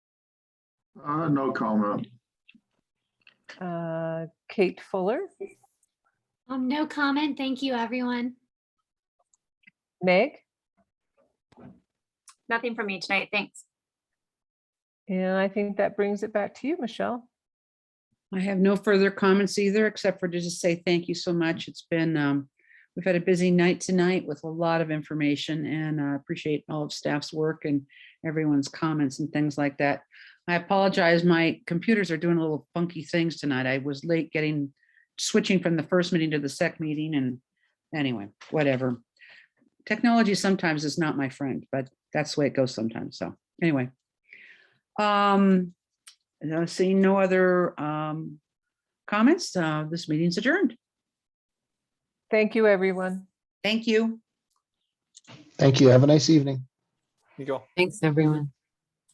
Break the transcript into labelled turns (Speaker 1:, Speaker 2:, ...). Speaker 1: Uh, no comment.
Speaker 2: Uh, Kate Fuller,
Speaker 3: Um, no comment. Thank you, everyone.
Speaker 2: Meg,
Speaker 4: Nothing from me tonight, thanks.
Speaker 2: and I think that brings it back to you, Michelle.
Speaker 5: I have no further comments either, except for to just say thank you so much. It's been, um, we've had a busy night tonight with a lot of information and I appreciate all of staff's work and everyone's comments and things like that. I apologize, my computers are doing little funky things tonight. I was late getting, switching from the first meeting to the sec meeting and anyway, whatever. Technology sometimes is not my friend, but that's the way it goes sometimes. So anyway. Um, and I see no other um comments. Uh, this meeting's adjourned.
Speaker 2: Thank you, everyone.
Speaker 5: Thank you.
Speaker 6: Thank you. Have a nice evening.
Speaker 7: You go.
Speaker 8: Thanks, everyone.